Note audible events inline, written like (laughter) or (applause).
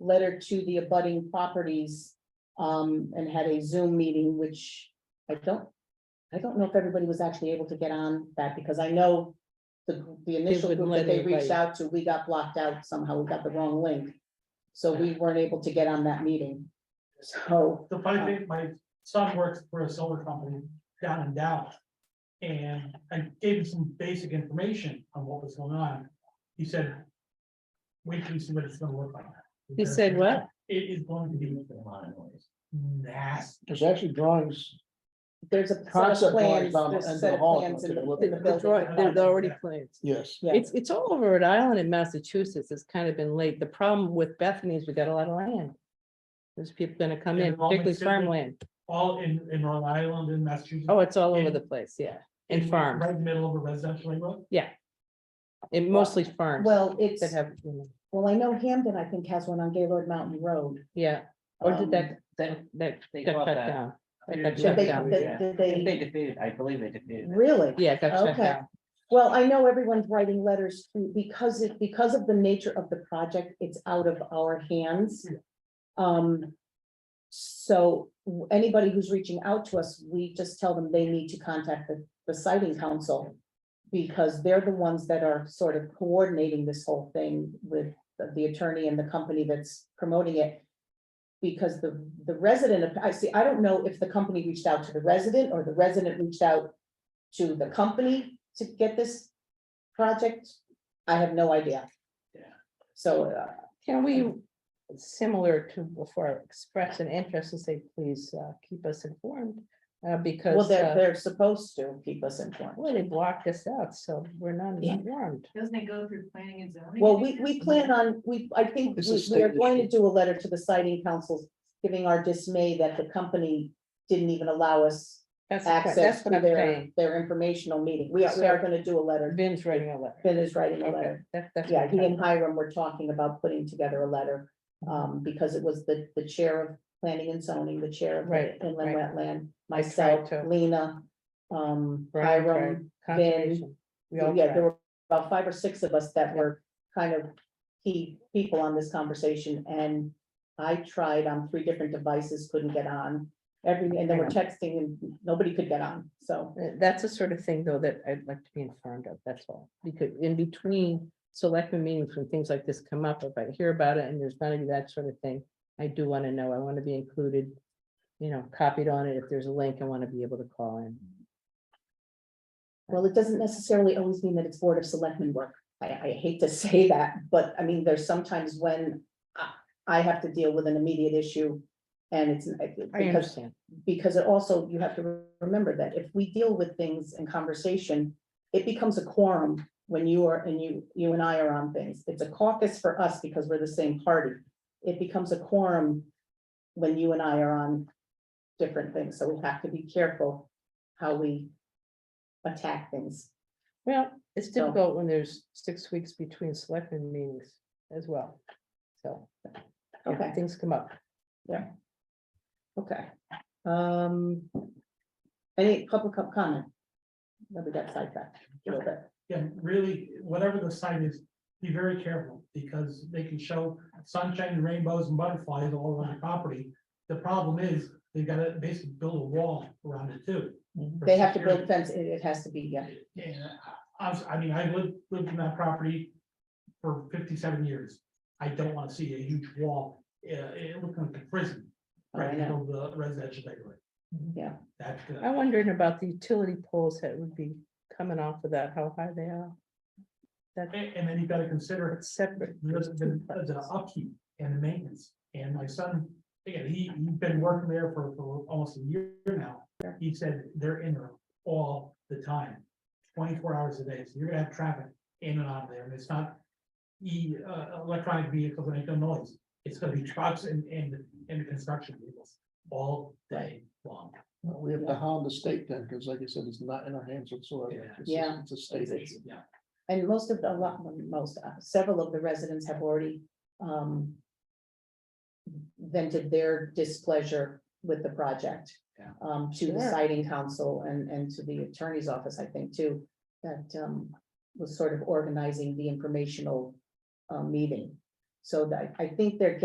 letter to the abutting properties. Um, and had a Zoom meeting, which I don't, I don't know if everybody was actually able to get on that, because I know. The, the initial wouldn't group that let they reached everybody. out to, we got blocked out somehow, we got the wrong link. So we weren't able to get on that meeting. So, The funny thing, my son works for a solar company down in Dallas. And I gave him some basic information on what was going on. He said. Wait till you see what it's gonna look like. He said what? It is going to be nasty. There's actually drawings. there's a set of Concept plans, drawings on the there's a set end of the of hall, plans in if you the, look in the at The building. drawing, there's already plans. Yes. Yeah. It's, it's all over Rhode Island and Massachusetts. It's kind of been late. The problem with Bethany is we got a lot of land. There's people gonna come in, And Roman particularly Catholic- farmland. All in, in Rhode Island and Massachusetts. Oh, it's all over And- the place, yeah. And farms, Right in the middle of a residential neighborhood. and mostly farms Well, it's, that have, you know, well, I know Hamden, I think, has one on Gaylord Mountain Road. yeah. Or did that, that, that They got bought cut that. down? That Yeah, got did Did shut they, down. did- did they- They defeated, I believe they defeated. it. really? Yeah, it got shut Okay. down. Well, I know everyone's writing letters to, because it, because of the nature of the project, it's out of our hands. Yeah. Um, so w- anybody who's reaching out to us, we just tell them they need to contact the, the siting council. Because they're the ones that are sort of coordinating this whole thing with the- the attorney and the company that's promoting it. Because the, the resident, of- I see, I don't know if the company reached out to the resident or the resident reached out to the company to get this project? I have no idea. Yeah. So, uh, Can we, similar to before, express an interest and say, please uh, keep us informed? Uh, Because. well, uh, they're, they're supposed to keep us informed. Well, they blocked us out, so we're not Yeah. informed. Doesn't it go through planning and zoning? Well, we, we plan on, we, I think It's a we we are state going to do a letter to the citing councils, giving our dismay that the company didn't even allow us That's, correct. access that's what to I'm their, saying. their informational meeting. We are, we are gonna do a letter. Ben's writing a letter. Ben is writing a Okay, letter. that- that's what Mm-hmm. Yeah, I'm he talking- and Hiram were talking about putting together a letter, um, because it was the, the chair of planning and zoning, the chair of Right, inland right. wetland, I tried myself, to- Lena, um, Brian tried. Hiram. Conservation. We all Yeah, there tried. were about five or six of us that were kind of key people on this conversation, and I tried on three different devices, couldn't get on. Every, and they were texting and nobody could get on, so, Uh, That's the sort of thing, though, that I'd like to be informed of, that's all. Because in between selectmen meetings, when things like this come up, if I hear about it and there's none of that sort of thing, I do want to know, I want to be included, you know, copied on it. If there's a link, I want to be able to call in. well, it doesn't necessarily always mean that it's Board of Selectmen work. I, I hate to (laughs) say that, but I mean, there's sometimes when I, I have to deal with an immediate issue, and it's. I because understand. because it also, you have to remember that if we deal with things in conversation, it becomes a quorum when you are, and you, you and I are on things. It's a caucus for us because we're the same party. It becomes a quorum when you and I are on different things, so we have to be careful how we attack things. Well, it's So- difficult when there's six weeks between selectmen meetings as well. So if Okay, things come up. okay. Um, any public co- comment? Let me get sidetracked a little bit. Yeah, really, whatever the site is, be very careful, because they can show sunshine and rainbows and butterflies all over the property. The problem is, they've gotta basically build a wall around it too. for They have to security. build fence, it, it has to be, yeah. Yeah, I, I was- I mean, I lived, lived in that property for fifty-seven years. I don't wanna see a huge wall, yeah, it looked like a prison, right, Oh, I know. in the residential neighborhood. Yeah. That's good. I'm wondering about the utility poles that would be coming off of that, how high they are. A- And then you've gotta consider It's separate. there's the, the upkeep and the maintenance, and my son, again, he, he's been working there for, for almost a year now. He said they're in there all the time, twenty-four hours a day, so you're gonna have traffic in and out of there, and it's not. E, uh, electronic vehicles that make no noise, it's gonna be (laughs) trucks and, and, and construction vehicles all day long. We have to hound the state then, because like I said, it's not in our hands whatsoever. Yeah. It's a- Yeah. It's a state issue. Yeah. And most of the, a lot, most, uh, several of the residents have already um. Vented their displeasure with the project. Yeah. Um, to the Sure. siding council and and to the attorney's office, I think, too, that um was sort of organizing the informational uh meeting. So that I think they're